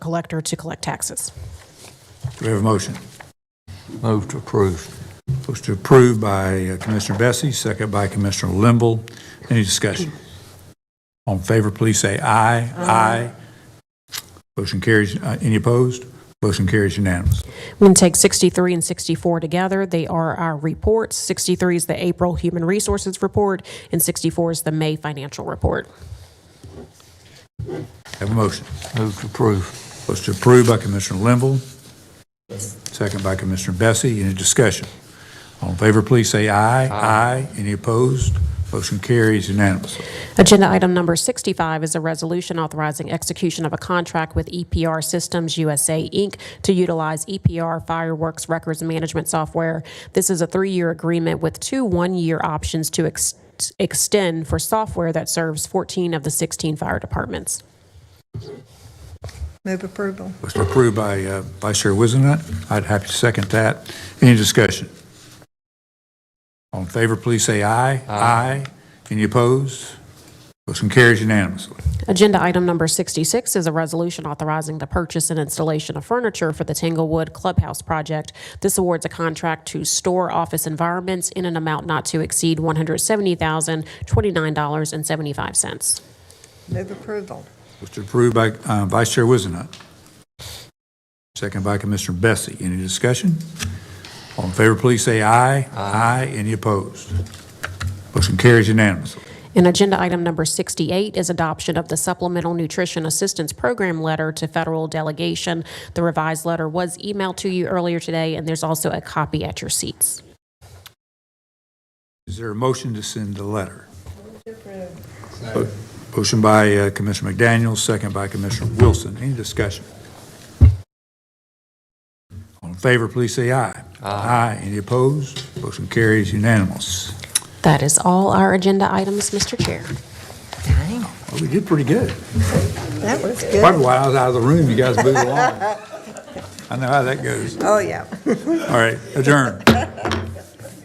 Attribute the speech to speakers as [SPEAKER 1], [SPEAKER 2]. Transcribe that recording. [SPEAKER 1] collector to collect taxes.
[SPEAKER 2] Do we have a motion?
[SPEAKER 3] Move to approve.
[SPEAKER 2] Motion to approve by uh, Commissioner Bessie, second by Commissioner Limble. Any discussion? All in favor, please say aye. Aye. Motion carries, uh, any opposed? Motion carries unanimous.
[SPEAKER 1] We can take 63 and 64 together. They are our reports. 63 is the April Human Resources Report, and 64 is the May Financial Report.
[SPEAKER 2] Have a motion.
[SPEAKER 3] Move to approve.
[SPEAKER 2] Motion to approve by Commissioner Limble, second by Commissioner Bessie. Any discussion? All in favor, please say aye. Aye. Any opposed? Motion carries unanimously.
[SPEAKER 1] Agenda item number 65 is a resolution authorizing execution of a contract with EPR Systems USA, Inc. to utilize EPR Fireworks Records Management Software. This is a three-year agreement with two one-year options to ex- extend for software that serves 14 of the 16 fire departments.
[SPEAKER 4] Move approval.
[SPEAKER 2] Motion approved by uh, Vice Chair Wizenhut. I'd happy to second that. Any discussion? All in favor, please say aye. Aye. Any opposed? Motion carries unanimously.
[SPEAKER 1] Agenda item number 66 is a resolution authorizing the purchase and installation of furniture for the Tanglewood Clubhouse project. This awards a contract to Store Office Environments in an amount not to exceed $170,029.75.
[SPEAKER 4] Move approval.
[SPEAKER 2] Motion approved by uh, Vice Chair Wizenhut. Second by Commissioner Bessie. Any discussion? All in favor, please say aye. Aye. Any opposed? Motion carries unanimously.
[SPEAKER 1] And agenda item number 68 is adoption of the Supplemental Nutrition Assistance Program letter to federal delegation. The revised letter was emailed to you earlier today, and there's also a copy at your seats.
[SPEAKER 2] Is there a motion to send the letter? Motion by uh, Commissioner McDaniel, second by Commissioner Wilson. Any discussion? All in favor, please say aye. Aye. Any opposed? Motion carries unanimous.
[SPEAKER 1] That is all our agenda items, Mr. Chair.
[SPEAKER 2] Well, We did pretty good.
[SPEAKER 4] That was
[SPEAKER 2] Probably
[SPEAKER 4] good.
[SPEAKER 2] why I was out of the room, you guys moved along. I know how that goes.
[SPEAKER 4] Oh, yeah.
[SPEAKER 2] All right, adjourn.